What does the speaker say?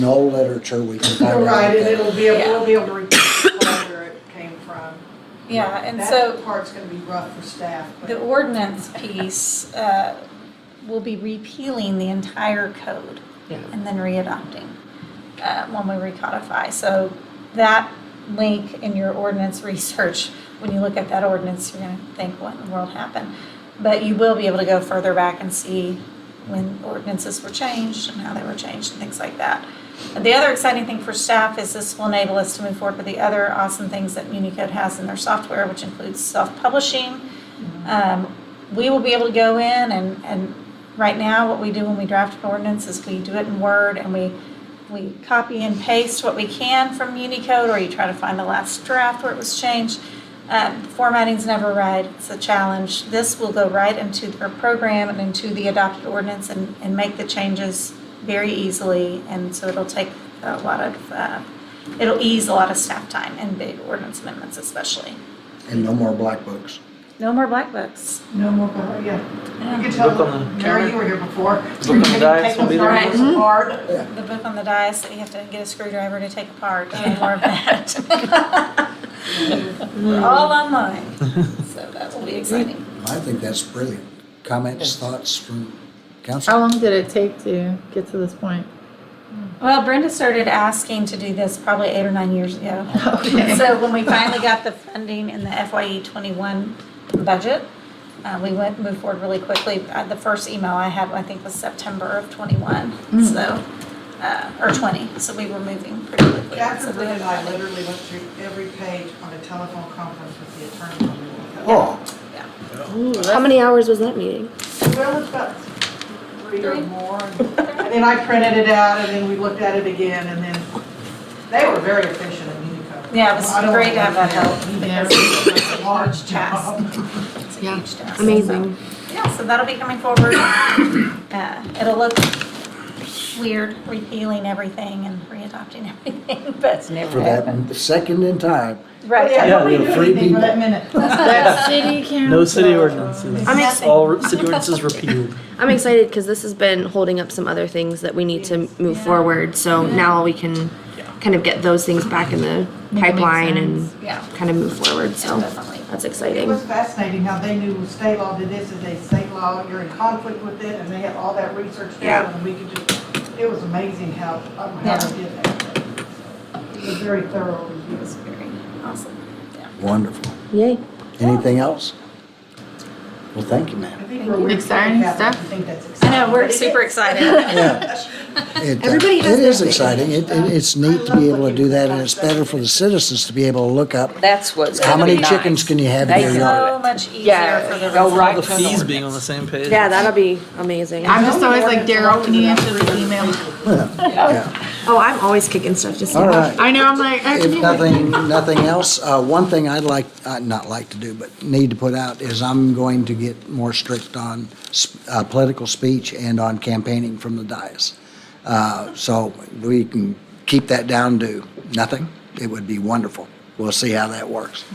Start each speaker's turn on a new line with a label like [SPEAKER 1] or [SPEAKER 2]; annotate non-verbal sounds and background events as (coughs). [SPEAKER 1] No literature we can find. out
[SPEAKER 2] Right, and
[SPEAKER 1] that.
[SPEAKER 2] it'll be, able-
[SPEAKER 3] Yeah.
[SPEAKER 2] we'll be able to recall where it came from.
[SPEAKER 3] Yeah, and
[SPEAKER 2] That
[SPEAKER 3] so
[SPEAKER 2] part's gonna be rough for staff,
[SPEAKER 3] the
[SPEAKER 2] but
[SPEAKER 3] ordinance piece, uh, will be repealing the entire code
[SPEAKER 4] Yeah.
[SPEAKER 3] and then readopting, uh, when we recodify. So that link in your ordinance research, when you look at that ordinance, you're gonna think, what in the world happened? But you will be able to go further back and see when ordinances were changed and how they were changed and things like that. The other exciting thing for staff is this will enable us to move forward with the other awesome things that MuniCode has in their software, which includes self-publishing. Um, We will be able to go in and, and right now, what we do when we draft an ordinance is we do it in Word and we, we copy and paste what we can from MuniCode, or you try to find the last draft where it was changed. Um, Formatting's never right, it's a challenge. This will go right into their program and into the adopted ordinance and, and make the changes very easily. And so it'll take a lot of, uh, it'll ease a lot of staff time and big ordinance amendments especially.
[SPEAKER 1] And no more black books.
[SPEAKER 3] No more black books.
[SPEAKER 2] no more, about- yeah. You can
[SPEAKER 4] Look on
[SPEAKER 2] tell,
[SPEAKER 4] the
[SPEAKER 2] Mary, you were here before.
[SPEAKER 4] Look on the dice,
[SPEAKER 2] Take
[SPEAKER 4] we'll be there.
[SPEAKER 2] those numbers
[SPEAKER 3] Mm-hmm.
[SPEAKER 2] apart.
[SPEAKER 3] The book on the dice that you have to get a screwdriver to take apart, and
[SPEAKER 5] (laughs)
[SPEAKER 3] more of that. We're all online, so that will be exciting.
[SPEAKER 1] I think that's brilliant. Comments, thoughts from
[SPEAKER 5] How
[SPEAKER 1] council?
[SPEAKER 5] long did it take to get to this point?
[SPEAKER 3] Well, Brenda started asking to do this probably eight or nine years ago.
[SPEAKER 5] Okay.
[SPEAKER 3] So when we finally got the funding in the FYE twenty-one budget, uh, we went, moved forward really quickly. Uh, the first email I had, I think, was September of twenty-one,
[SPEAKER 5] Mm.
[SPEAKER 3] so, uh, or twenty, so we were moving pretty quickly. So
[SPEAKER 2] Catherine
[SPEAKER 3] we
[SPEAKER 2] Brynn and
[SPEAKER 3] had
[SPEAKER 2] I
[SPEAKER 3] funding.
[SPEAKER 2] literally went through every page on a telephone conference with the attorney. on the way.
[SPEAKER 1] Oh,
[SPEAKER 6] How many hours was that meeting?
[SPEAKER 2] Well, it's about three or
[SPEAKER 3] Three. (laughs)
[SPEAKER 2] more. And and then I printed it out and then we looked at it again and then, they were very efficient at Unico.
[SPEAKER 3] Yeah, it was
[SPEAKER 2] I don't
[SPEAKER 3] great to have that
[SPEAKER 2] know.
[SPEAKER 3] help because it's a large task. It's a
[SPEAKER 5] Yeah.
[SPEAKER 3] huge task.
[SPEAKER 6] Amazing.
[SPEAKER 3] So, Yeah, so that'll be coming forward. (coughs) Uh, It'll look weird repealing everything and readopting everything, (laughs) but.
[SPEAKER 1] for that second in time.
[SPEAKER 3] Right.
[SPEAKER 2] Oh, Yeah,
[SPEAKER 4] Yeah,
[SPEAKER 2] nobody
[SPEAKER 4] we
[SPEAKER 2] knew
[SPEAKER 1] have
[SPEAKER 2] anything
[SPEAKER 1] freebie.
[SPEAKER 2] for that minute.
[SPEAKER 5] That city council.
[SPEAKER 4] No city ordinances.
[SPEAKER 6] I'm ex-
[SPEAKER 3] Nothing.
[SPEAKER 4] All re- city ordinances repealed.
[SPEAKER 6] I'm excited because this has been holding up some other things that we need to move forward. So now we can kind of get those things back in
[SPEAKER 5] Make
[SPEAKER 6] the
[SPEAKER 5] it make
[SPEAKER 6] pipeline and
[SPEAKER 5] sense.
[SPEAKER 3] Yeah,
[SPEAKER 6] kind of move forward. So
[SPEAKER 3] definitely.
[SPEAKER 6] that's
[SPEAKER 2] It
[SPEAKER 6] exciting.
[SPEAKER 2] was fascinating how they knew state law did this, and they state law, you're in conflict with it, and they had all that research
[SPEAKER 6] Yeah.
[SPEAKER 2] done, and we could just, it was amazing how, um, how they did that. It was very thorough
[SPEAKER 3] It
[SPEAKER 2] review.
[SPEAKER 3] was very awesome.
[SPEAKER 1] Wonderful.
[SPEAKER 6] Yay.
[SPEAKER 1] Anything else? Well, thank you,
[SPEAKER 2] I
[SPEAKER 1] ma'am.
[SPEAKER 2] think we're weird.
[SPEAKER 5] Exciting
[SPEAKER 2] Yeah,
[SPEAKER 5] stuff.
[SPEAKER 2] I think that's
[SPEAKER 3] I
[SPEAKER 2] exciting.
[SPEAKER 3] know, we're super excited.
[SPEAKER 1] Yeah. It, uh,
[SPEAKER 6] Everybody
[SPEAKER 1] It is
[SPEAKER 6] has their thing.
[SPEAKER 1] exciting. It, it- it's neat to be able to do that and it's better for the citizens to be able to look up
[SPEAKER 7] That's what's
[SPEAKER 1] how
[SPEAKER 7] gonna be
[SPEAKER 1] many chickens
[SPEAKER 7] nice.
[SPEAKER 1] can you have in
[SPEAKER 7] They
[SPEAKER 1] your
[SPEAKER 7] can-
[SPEAKER 1] yard?
[SPEAKER 3] So much easier
[SPEAKER 7] Yeah,
[SPEAKER 3] for the
[SPEAKER 7] go right
[SPEAKER 4] The
[SPEAKER 7] to the
[SPEAKER 4] fees
[SPEAKER 7] ordinance.
[SPEAKER 4] being on the same page.
[SPEAKER 6] Yeah, that'll be amazing.
[SPEAKER 5] I'm just always like, Daryl, can you answer the email?
[SPEAKER 1] Yeah.
[SPEAKER 6] Oh, I'm always kicking stuff just
[SPEAKER 1] All right.
[SPEAKER 5] I know, I'm like, I
[SPEAKER 1] If
[SPEAKER 5] can
[SPEAKER 1] nothing, nothing else, uh, one thing I'd like, uh, not like to do, but need to put out is I'm going to get more strict on s- uh, political speech and on campaigning from the dais. Uh, So we can keep that down to nothing. It would be wonderful. We'll see how that works.